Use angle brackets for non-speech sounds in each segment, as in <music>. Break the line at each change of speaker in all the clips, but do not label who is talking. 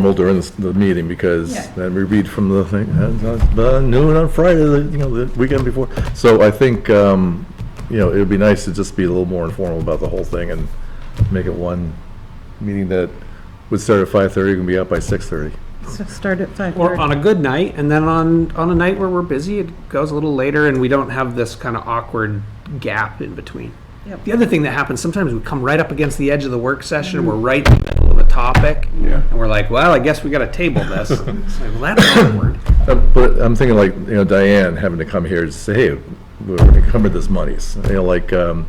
formal during this- the meeting because
Yeah.
then we read from the thing, uh, uh, noon on Friday, the, you know, the weekend before. So I think, um, you know, it would be nice to just be a little more informal about the whole thing and make it one meeting that would start at five-thirty, can be out by six-thirty.
So start at five
Or
thirty.
on a good night, and then on, on a night where we're busy, it goes a little later and we don't have this kind of awkward gap in between.
Yep.
The other thing that happens, sometimes we come right up against the edge of the work session, and we're right in the middle of a topic. Yeah. And we're like, well, I guess we gotta table this. It's like, well, that's awkward.
Uh, But I'm thinking like, you know, Diane having to come here to say, hey, we're encumbered this monies. You know, like, um,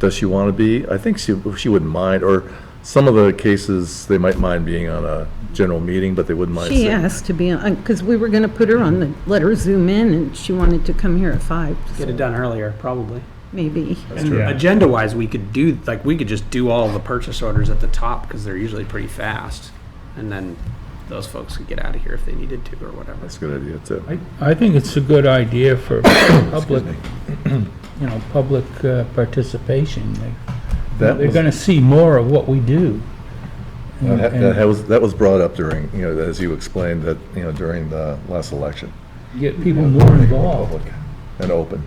does she want to be? I think she, she wouldn't mind, or some of the cases, they might mind being on a general meeting, but they wouldn't mind.
She
sitting-
asked to be on, because we were going to put her on the, let her zoom in, and she wanted to come here at five,
Get it done earlier, probably.
maybe.
And agenda-wise, we could do, like, we could just do all the purchase orders at the top, because they're usually pretty fast. And then those folks could get out of here if they needed to, or whatever.
That's a good idea, too.
I, I think it's a good idea
<coughs>
for public, you know, public uh, participation. Like,
That
They're
was-
gonna see more of what we do.
That ha-
And-
That was, that was brought up during, you know, as you explained, that, you know, during the last election.
and Get people more involved.
Public And open.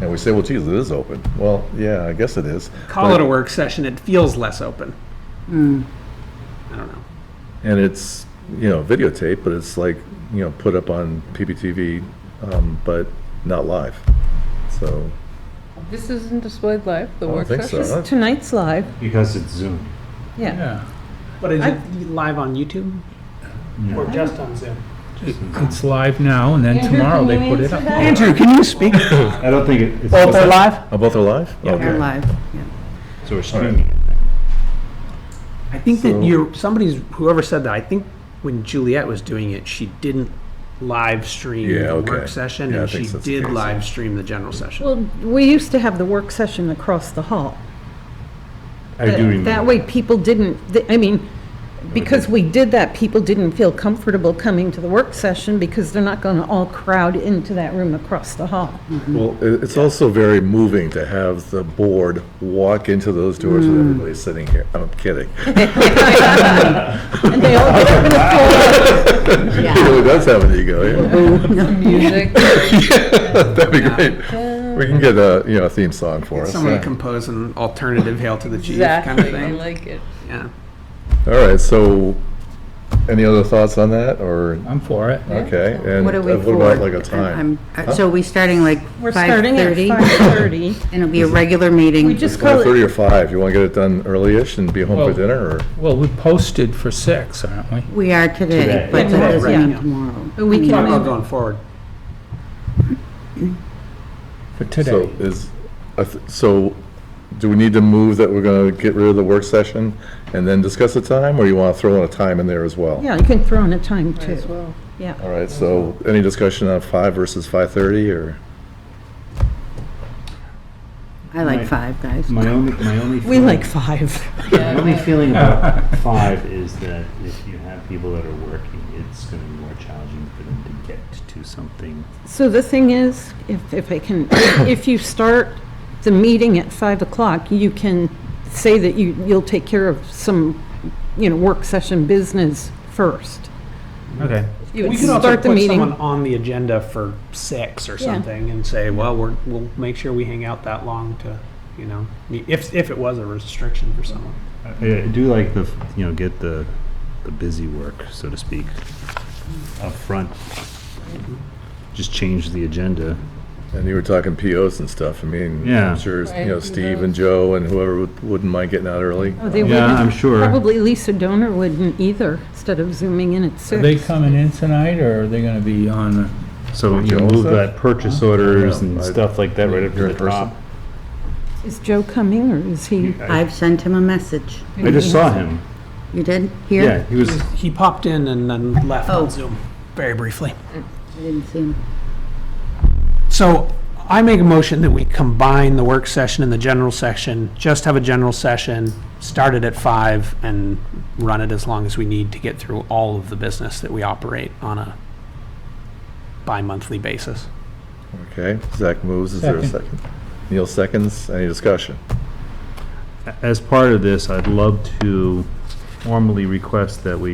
And we say, well, geez, it is open. Well, yeah, I guess it is.
Call it a
but-
work session, it feels less open. Hmm. I don't know.
And it's, you know, videotape, but it's like, you know, put up on PPTV, um, but not live. So,
This isn't displayed live, the
I don't
work
think so.
session?
Uh-huh.
huh?
Tonight's live,
Because it's Zoom.
yeah.
Yeah,
But is
I-
it live on YouTube? Or just on Zoom?
it's live now, and then tomorrow they put it up.
Andrew, can you
<laughs>
speak?
I don't think it- it's.
live?
Oh, both are live?
They're
Okay.
live, yeah.
So we're streaming.
I think
So-
that you're, somebody's, whoever said that, I think when Juliet was doing it, she didn't live stream
Yeah,
the
okay.
work session,
Yeah, I
and
think
she
that's the
did
case.
live stream the general session.
Well, we used to have the work session across the hall.
I do remember.
That way, people didn't, th- I mean, because we did that, people didn't feel comfortable coming to the work session because they're not going to all crowd into that room across the <laughs> hall.
Well, i- it's also very moving to have the board walk into those doors with everybody sitting here. I'm kidding. <laughs>
And they all get <laughs> up in a
It really does have an ego, yeah. <laughs>
Music.
That'd be great. We can get a, you know, a theme song for us.
Somebody
yeah.
compose an alternative Hail to the Chief kind of
Exactly, I
thing.
like it.
Yeah.
All right, so any other thoughts on that, or,
I'm for it.
okay? and
What are we
uh,
for?
What about like a
I'm-
time?
uh, So we starting like
We're starting at
5:30?
5:30.
And it'll be a regular meeting?
We just call it,
Thirty or five? You want to get it done early-ish and be home
Well-
for dinner, or?
Well, we posted for six, aren't we?
We are today,
Today.
but
Yeah,
that doesn't
right.
mean tomorrow.
but we
Talk
can
about
move
going forward.
So
For today.
is, I th- so do we need to move that we're going to get rid of the work session and then discuss the time, or you want to throw in a time in there as well?
Yeah, you can throw in a time too.
well.
Yeah,
All right, so any discussion on five versus five-thirty, or?
I like five, guys.
My only, my only.
<laughs> we
feeling-
like five.
My only
<laughs>
feeling about five is that if you have people that are working, it's gonna be more challenging for them to get to something.
So the thing is, if, if I can, if you start the meeting at five o'clock, you can say that you, you'll take care of some, you know, work session business first.
Okay.
You
We
would
could also
start the
put someone
meeting.
on the agenda for six or
Yeah.
something and say, well, we're, we'll make sure we hang out that long to, you know, if, if it was a restriction for someone.
I I do like the, f- you know, get the, the busy work, so to speak, up front. Just change the agenda.
And you were talking POs and stuff, I mean,
Yeah.
I'm sure, you know,
Right.
Steve and Joe and whoever would- wouldn't mind getting out early.
Oh, they
Yeah,
wouldn't-
I'm sure.
Probably Lisa Donor wouldn't either, instead of zooming in at
Are they
six.
coming in tonight, or are they gonna be on?
So you
Joe,
know, move
is that-
that purchase orders
Yeah, I-
and stuff like that right up
You're in
to the
person?
top.
Is Joe coming or is he?
I've sent him a message.
I just saw him.
You did? Here?
Yeah, he was,
He popped in and then left
Oh.
on Zoom very briefly.
I didn't see him.
So I make a motion that we combine the work session and the general session, just have a general session, start it at five and run it as long as we need to get through all of the business that we operate on a bi-monthly basis.
Okay, Zach moves, is there a
Second.
second? Neil seconds, any discussion?
as part of this, I'd love to formally request that we